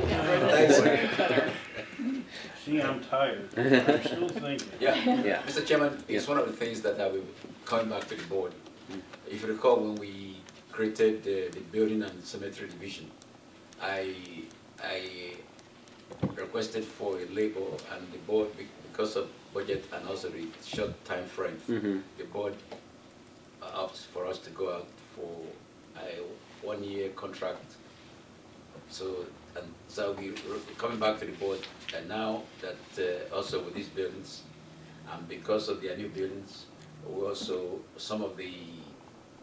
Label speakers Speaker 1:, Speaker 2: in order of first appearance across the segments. Speaker 1: Thanks.
Speaker 2: See, I'm tired. I'm still thinking.
Speaker 1: Yeah.
Speaker 3: Yeah.
Speaker 1: Mr. Chairman, it's
Speaker 3: Yeah. Mm.
Speaker 1: one of the things that I will come back to the board. If you recall, when we created the, the building and cemetery division, I, I requested for a label and the board, be- because of budget and also the short time frame,
Speaker 3: Mm-hmm.
Speaker 1: the board opts for us to go out for a one-year contract. So, and so we, coming back to the board, and now that uh, also with these buildings, and because of their new buildings, we also, some of the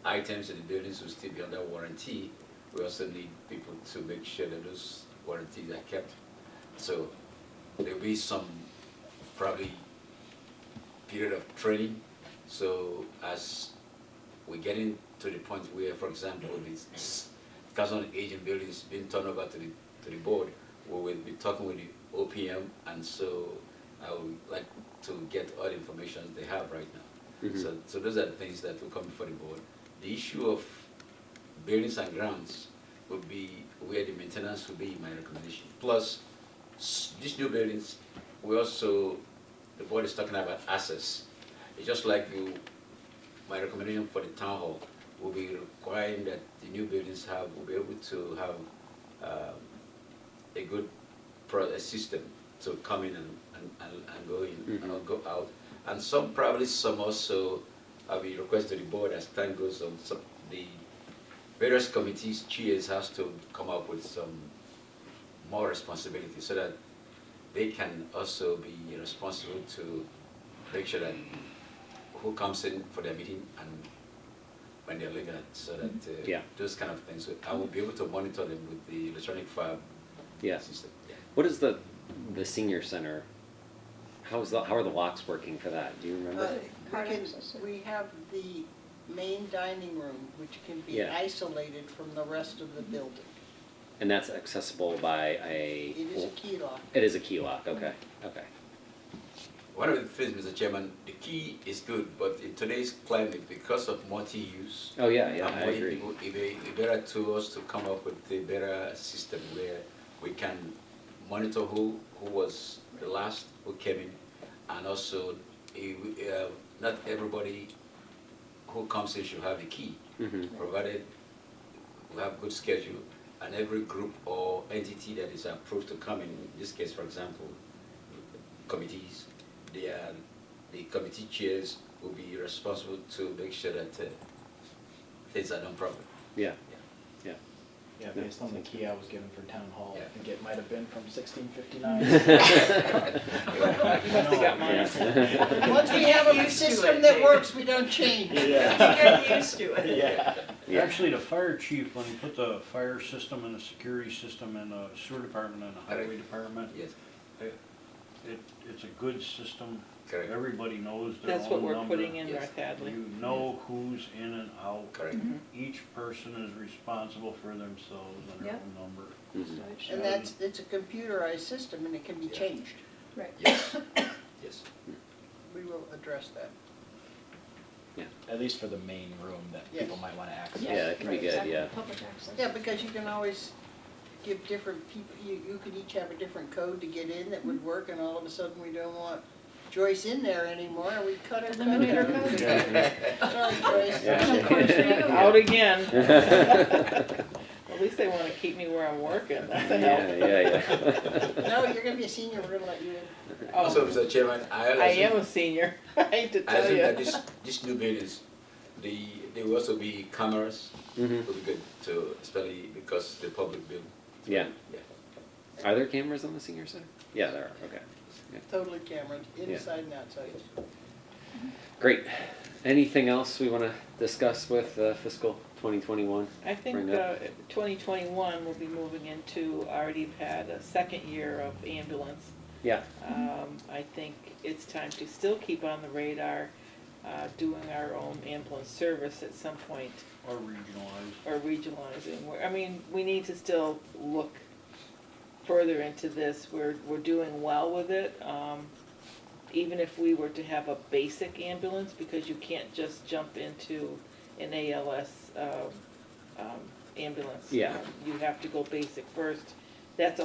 Speaker 1: items in the buildings will still be under warranty. We also need people to make sure that those warranties are kept. So there'll be some probably period of training. So as we're getting to the point where, for example, this council on aging building is being turned over to the, to the board, we will be talking with the OPM, and so I would like to get all the information they have right now.
Speaker 3: Mhm.
Speaker 1: So, so those are the things that will come before the board. The issue of buildings and grounds would be where the maintenance would be my recommendation. Plus, s- these new buildings, we also, the board is talking about access. It's just like you, my recommendation for the town hall will be requiring that the new buildings have, will be able to have um, a good pro, a system to come in and, and, and and go in
Speaker 3: Mm-hmm.
Speaker 1: and not go out. And some, probably some also, I will request to the board as time goes on, some, the various committees, chairs has to come up with some more responsibility so that they can also be responsible to make sure that who comes in for their meeting and when they're leaving, so that uh,
Speaker 3: Yeah.
Speaker 1: those kind of things. I will be able to monitor them with the electronic file
Speaker 3: Yeah.
Speaker 1: system. Yeah.
Speaker 3: What is the the senior center? How is the how are the locks working for that? Do you remember?
Speaker 4: Uh,
Speaker 5: Hard
Speaker 4: We can,
Speaker 5: access.
Speaker 4: we have the main dining room, which can be
Speaker 3: Yeah.
Speaker 4: isolated from the rest of the building.
Speaker 3: and that's accessible by a.
Speaker 4: It is a key lock.
Speaker 3: It is a key lock. Okay. Okay.
Speaker 1: One of the things, Mr. Chairman, the key is good, but in today's climate, because of multi-use,
Speaker 3: Oh yeah. Yeah.
Speaker 1: and
Speaker 3: I
Speaker 1: more
Speaker 3: agree.
Speaker 1: people, it be- it better to us to come up with a better system where we can monitor who, who was the last who came in, and also, eh, we- eh, not everybody who comes in should have a key,
Speaker 3: Mm-hmm.
Speaker 1: provided we have good schedule, and every group or entity that is approved to come in, in this case, for example, committees, they are, the committee chairs will be responsible to make sure that uh, things are done properly.
Speaker 3: Yeah. Yeah.
Speaker 6: Yeah, based on the key I was given for town hall,
Speaker 1: Yeah.
Speaker 6: I think it might have been from sixteen fifty-nine.
Speaker 3: Mm-hmm.
Speaker 2: No,
Speaker 6: got
Speaker 2: my
Speaker 3: mine.
Speaker 2: fault.
Speaker 4: Once we have a system that works, we don't change.
Speaker 5: Get used to it.
Speaker 6: Yeah.
Speaker 3: Yeah.
Speaker 2: Actually, the fire chief, when he put the fire system and the security system and the sewer department and the highway department,
Speaker 1: Yes,
Speaker 2: it, it's a good system.
Speaker 1: correct,
Speaker 2: Everybody knows their own number.
Speaker 7: That's what we're putting in
Speaker 1: Yes.
Speaker 7: North Hadley.
Speaker 2: You know who's in and out.
Speaker 1: correct.
Speaker 2: Each person is responsible for themselves and their
Speaker 5: Yep.
Speaker 2: own number.
Speaker 3: Mhm.
Speaker 4: And that's, it's a computerized system and it can be
Speaker 1: Yeah.
Speaker 4: changed.
Speaker 5: Right.
Speaker 1: Yes, yes.
Speaker 4: We will address that.
Speaker 6: At least for the main room that
Speaker 4: Yes.
Speaker 6: people might wanna access.
Speaker 3: Yeah, that could be
Speaker 5: right,
Speaker 3: good,
Speaker 5: exactly,
Speaker 3: yeah.
Speaker 5: Public access.
Speaker 4: Yeah, because you can always give different people, you, you could each have a different code to get in that would work and all of a sudden we don't want Joyce in there anymore and we cut her code.
Speaker 5: Eliminate her
Speaker 4: out.
Speaker 5: code.
Speaker 4: Sorry, Joyce.
Speaker 3: Yeah.
Speaker 5: Of course, there you go.
Speaker 7: Out again.
Speaker 3: yeah.
Speaker 7: At least they wanna keep me where I'm working, what the hell?
Speaker 3: Yeah. Yeah.
Speaker 4: No, you're gonna be a senior, we're gonna let you in.
Speaker 1: Also,
Speaker 7: Oh,
Speaker 1: Mr. Chairman, I also.
Speaker 7: I am a senior, I hate to
Speaker 1: I
Speaker 7: tell
Speaker 1: think that
Speaker 7: you.
Speaker 1: this, this new buildings, the, there will also be cameras,
Speaker 3: hmm
Speaker 1: will be good to, especially because the public building.
Speaker 3: Yeah.
Speaker 1: Yeah.
Speaker 3: Are there cameras on the senior center? Yeah, there are. Okay.
Speaker 4: Totally cameras,
Speaker 3: Yeah.
Speaker 4: inside and outside.
Speaker 3: Great. Anything else we want to discuss with uh, fiscal 2021?
Speaker 7: I think
Speaker 3: Bring it
Speaker 7: uh, 2021 will be moving into, already had a second year of ambulance.
Speaker 3: Yeah.
Speaker 7: Um, I think it's time to still keep on the radar, uh, doing our own ambulance service at some point
Speaker 2: Or regionalized.
Speaker 7: or regionalizing. We're- I mean, we need to still look further into this. We're, we're doing well with it. Um, even if we were to have a basic ambulance, because you can't just jump into an ALS, um, um, ambulance.
Speaker 3: Yeah.
Speaker 7: You have to go basic first that's a